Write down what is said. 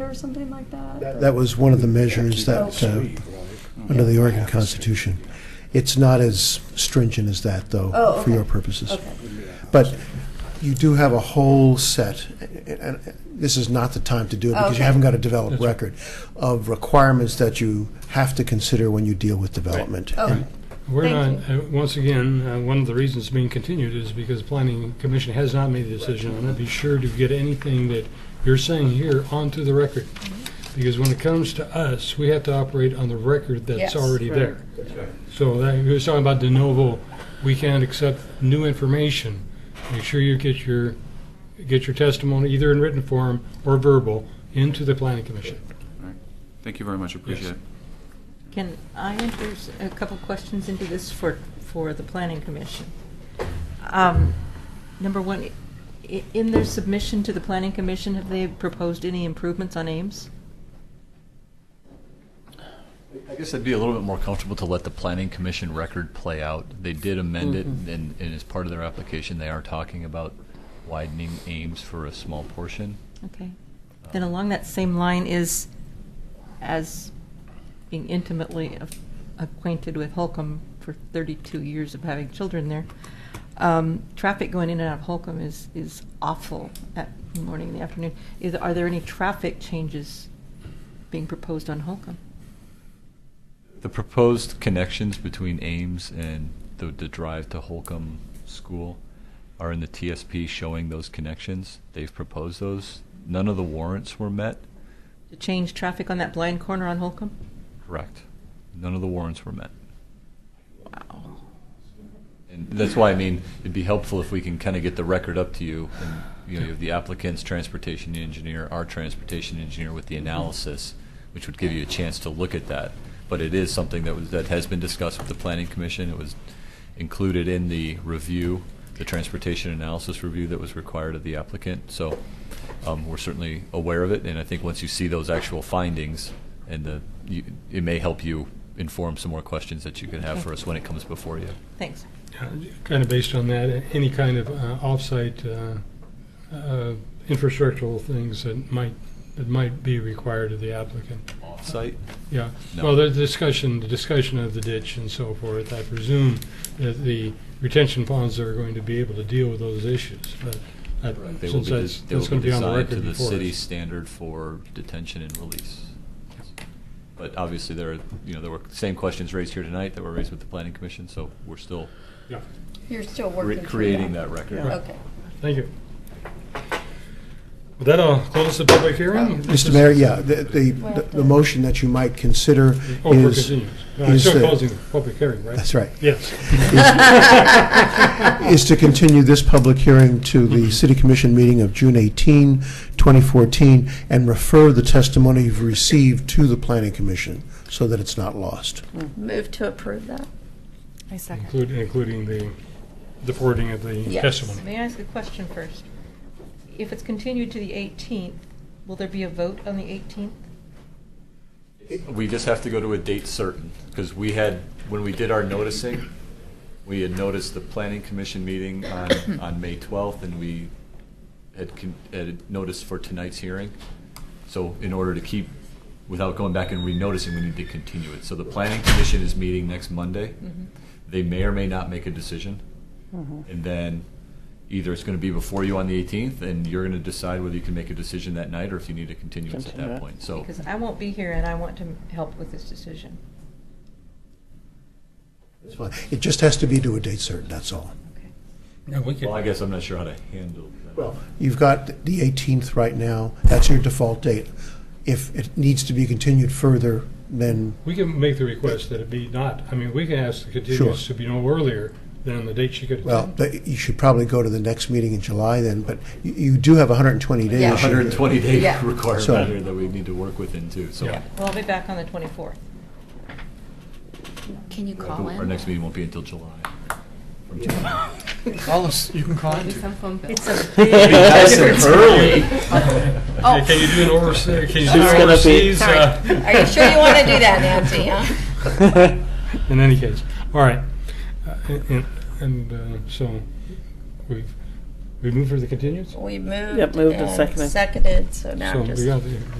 or something like that? That was one of the measures that, uh, under the Oregon Yeah. Constitution. It's not as stringent as that, Oh, though, for okay. your purposes. Okay, But you do have a whole set, and and this is not the time to do it because Okay. you haven't got a developed That's right. record, of requirements that you have to consider when you deal with development. okay, We're Thank not, uh, once again, uh, one of the reasons being continued is because Planning Commission has not made a decision on it. Be sure to get anything that you're saying here onto the record. Mm-hmm. Because when it comes to us, we have to operate on the record Yes. that's already there. So that, we was talking about de novo, we can't accept new information. Make sure you get your, get your testimony either in written form or verbal into the Planning Commission. Thank you very much, appreciate it. Can I enter s- a couple questions into this for, for the Planning Commission? Um, Number one, i- in their submission to the Planning Commission, have they proposed any improvements on Ames? I guess I'd be a little bit more comfortable to let the planning commission record play out. They did amend it, Mm-hmm. and, and as part of their application, they are talking about widening Ames for a small portion. Um, Okay. Then along that same line is, as being intimately a- acquainted with Holcomb for 32 years of having children there, um, traffic going in and out of Holcomb is, is awful at morning and the afternoon. Is, are there any traffic changes being proposed on Holcomb? The proposed connections between Ames and the, the drive to Holcomb School are in the TSP showing those connections. They've proposed those. None of the warrants were met. To change traffic on that blind corner on Holcomb? Correct. None of the warrants were met. And that's why, I mean, it'd be helpful if we can kind of get the record up to you. And, you know, you have the applicant's transportation engineer, our transportation engineer with the analysis, which would give you a chance to look at that. But it is something that was, that has been discussed with the planning commission. It was included in the review, the transportation analysis review that was required of the applicant. So, um, we're certainly aware of it. And I think once you see those actual findings and the, you, it may help you inform some more questions that you could have for us when it comes before you. Thanks. Kind of based on that, any kind of uh, off-site uh, uh, infrastructural things that might, that might be required of the applicant. Off-site? Yeah, No. well, the discussion, the discussion of the ditch and so forth, I presume that the retention ponds are going to be able to deal with those issues, but that- They will since be, that's, des- they that's will going be to be on the designed to record the before city us. standard for detention and release. But obviously, there are, you know, there were same questions raised here tonight that were raised with the planning commission, so we're still Yeah. you're still re- working through creating that record. Okay. Thank you. With that, I'll close the public hearing. This Mr. is- Mayor, yeah, the, the, the- the motion that you might consider Oh, for is, continuance. No, I'm is still the- closing the public hearing, right? that's right, Yes. is to continue this public hearing to the City Commission meeting of June 18, 2014, and refer the testimony you've received to the Planning Commission so that it's not lost. Move to approve that? I second. Include- Including the, the forwarding of the Yes. testimony. May I ask a question first? If it's continued to the 18th, will there be a vote on the 18th? We just have to go to a date certain, because we had, when we did our noticing, we had noticed the planning commission meeting on, on May 12th, and we had, con- had noticed for tonight's hearing. So in order to keep, without going back and re-noticing, we need to continue it. So the planning commission is meeting next Monday. Mm-hmm. They may or may not make a decision. Mm-hmm. And then either it's going to be before you on the 18th, and you're going to decide whether you can make a decision that night, or if you need a continuance at Continue that it. point, so. Because I won't be here and I want to help with this decision. It's fine. It just has to be to a date certain, that's all. Okay. And we could- Well, I guess I'm not sure how to handle that. Well, you've got the 18th right now, that's your default date. If it needs to be continued further, then We can make the request that it be not, I mean, we can ask the continuance to be no earlier than the date she could. Well, but you should probably go to the next meeting in July then, but you- you do have 120 days. Yeah. 120 day Yeah. So- requirement here that we need to work within too, so. Yeah. Well, I'll be back on the 24th. Can you call Our in? next meeting won't be until July. Call us, you can call in. Some phone bill. It's a big, Nice and early. Can can you do an overseas, can you do It's an gonna be- overseas? uh, Are you sure you want to do that, Nancy, huh? In any case, all right. Uh, And, and, uh, so, we've, we moved for the continuance? We moved. Yep, moved and and seconded. Seconded, so now So just. we got the-